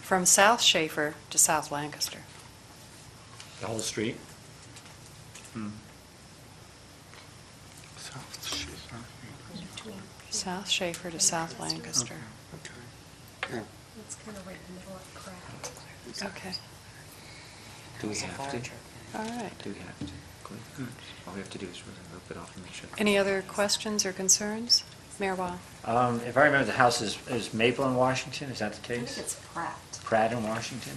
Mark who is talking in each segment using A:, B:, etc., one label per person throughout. A: from South Schaefer to South Lancaster.
B: The whole street? Hmm.
A: South Schaefer to South Lancaster.
C: It's kind of right in the middle of crap.
A: Okay,
D: Do we have to?
A: all right.
D: Do we have to? Go
B: Hmm.
D: ahead. All we have to do is really rip it off and make sure.
A: Any other questions or concerns? Mayor Weil?
B: Um, If I remember, the house is, is Maple in Washington, is that the
C: I
B: case?
C: think it's Pratt.
B: Pratt in Washington?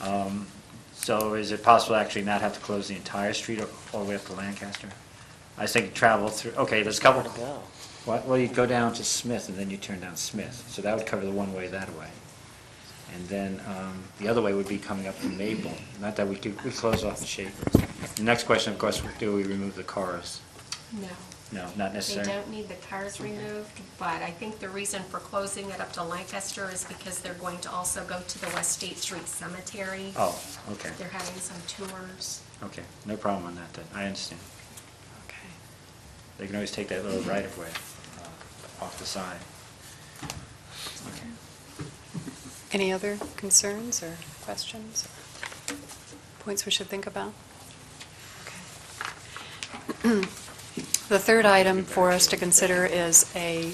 B: Um, So is it possible to actually not have to close the entire street or all the way up to Lancaster? I was thinking travel through, okay, there's a couple. What, well, you'd go down to Smith and then you turn down Smith, so that would cover the one way that way. And then um, the other way would be coming up from Maple, not that we could, we close off the Schaefer. The next question, of course, would do we remove the cars?
C: No.
B: No, not
C: They
B: necessarily.
C: don't need the cars removed, but I think the reason for closing it up to Lancaster is because they're going to also go to the West State Street Cemetery.
B: Oh, okay,
C: They're having some tours.
B: okay, no problem on that then, I understand.
A: Okay.
B: They can always take that little right of way uh, off the side. Okay.
A: Any other concerns or questions? Points we should think about? Okay. The third item for us to consider is a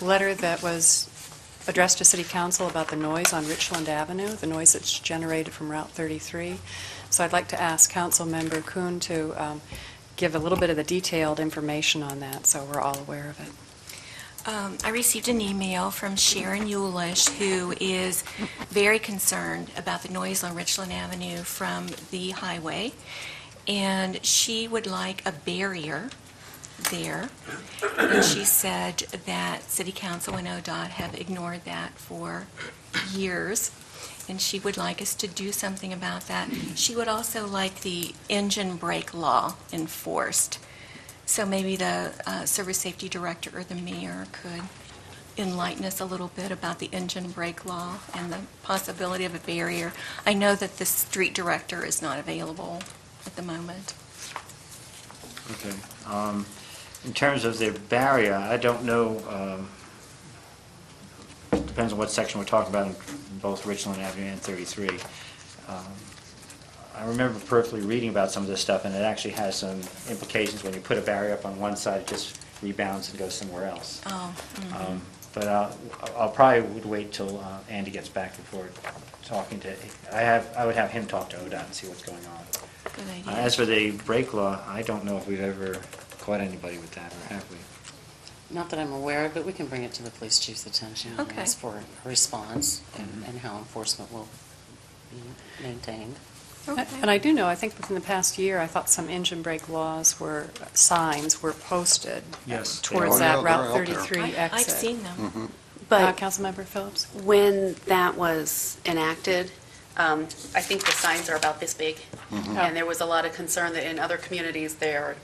A: letter that was addressed to City Council about the noise on Richland Avenue, the noise that's generated from Route 33. So I'd like to ask Councilmember Kuhn to um, give a little bit of the detailed information on that, so we're all aware of it.
E: Um, I received an email from Sharon Yulish, who is very concerned about the noise on Richland Avenue from the highway, and she would like a barrier there. And she said that City Council and ODOT have ignored that for years, and she would like us to do something about that. She would also like the engine brake law enforced. So maybe the uh, Service Safety Director or the mayor could enlighten us a little bit about the engine brake law and the possibility of a barrier. I know that the street director is not available at the moment.
B: Okay. Um, In terms of the barrier, I don't know, um, depends on what section we're talking about in both Richland Avenue and 33. Um, I remember perfectly reading about some of this stuff, and it actually has some implications. When you put a barrier up on one side, it just rebounds and goes somewhere else.
E: Oh, mhm.
B: Um, But I'll I'll probably would wait till uh, Andy gets back before talking to, I have, I would have him talk to ODOT and see what's going on.
E: good
B: Uh,
E: idea.
B: As for the brake law, I don't know if we've ever caught anybody with that, or have we?
F: Not that I'm aware of, but we can bring it to the police chief's attention and
E: Okay.
F: ask for a response and
D: Mm-hmm.
B: Mhm.
F: and how enforcement will be maintained.
E: Okay.
A: And I do know, I think within the past year, I thought some engine brake laws were, signs were posted uh,
B: Yes.
A: towards
G: Oh, yeah,
A: that
G: they're
A: Route
G: out there.
A: 33
E: I-
A: exit.
E: I've seen them.
A: Uh,
H: But
A: Councilmember Phillips?
H: when that was enacted, um, I think the signs are about this big. And there was a lot of concern that in other communities, they're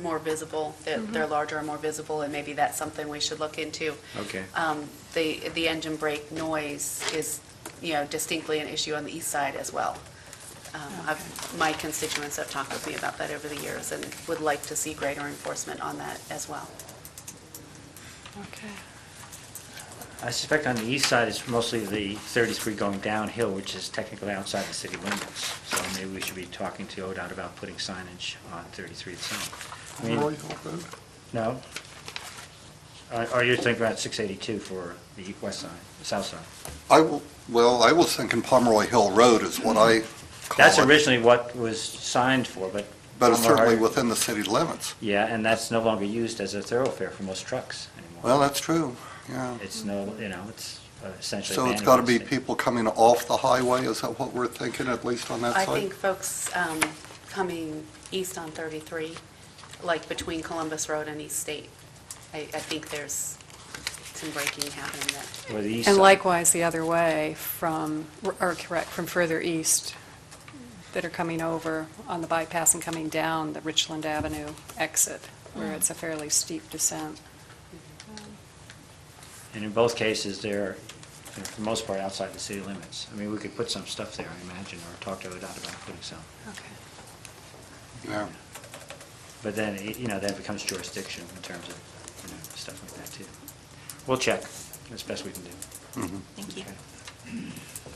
H: more visible, that they're larger and more visible, and maybe that's something we should look into.
B: Okay.
H: Um, The, the engine brake noise is, you know, distinctly an issue on the east side as well. Um, I've- My constituents have talked with me about that over the years and would like to see greater enforcement on that as well.
A: Okay.
B: I suspect on the east side, it's mostly the 33 going downhill, which is technically outside the city limits. So maybe we should be talking to ODOT about putting signage on 33 itself. I mean,
G: Roy Hill Road?
B: No? Or- Or you're thinking about 682 for the west side, south side?
G: I, w- well, I was thinking Pomeroy Hill Road is what I call
B: That's
G: it,
B: originally what was signed for, but.
G: But it's certainly
B: Palmer-
G: within the city limits.
B: Yeah, and that's no longer used as a thoroughfare for most trucks anymore.
G: Well, that's true, yeah.
B: It's no, you know, it's uh, essentially.
G: So it's
B: abandoned
G: got to be
B: estate.
G: people coming off the highway, is that what we're thinking, at least on that
H: I
G: side?
H: think folks um, coming east on 33, like between Columbus Road and East State, I, I think there's some breaking happening that,
B: Or the east
A: And
B: side.
A: likewise, the other way from, or correct, from further east that are coming over on the bypass and coming down the Richland Avenue exit, where it's a fairly steep descent. Mm-hmm.
B: And in both cases, they're, you know, for the most part, outside the city limits. I mean, we could put some stuff there, I imagine, or talk to ODOT about putting some.
A: Okay.
G: Yeah.
B: But then, it- you know, that becomes jurisdiction in terms of, you know, stuff
G: mm-hmm.
B: like that, too. We'll check, as best we can do.
E: Thank you.
B: Okay.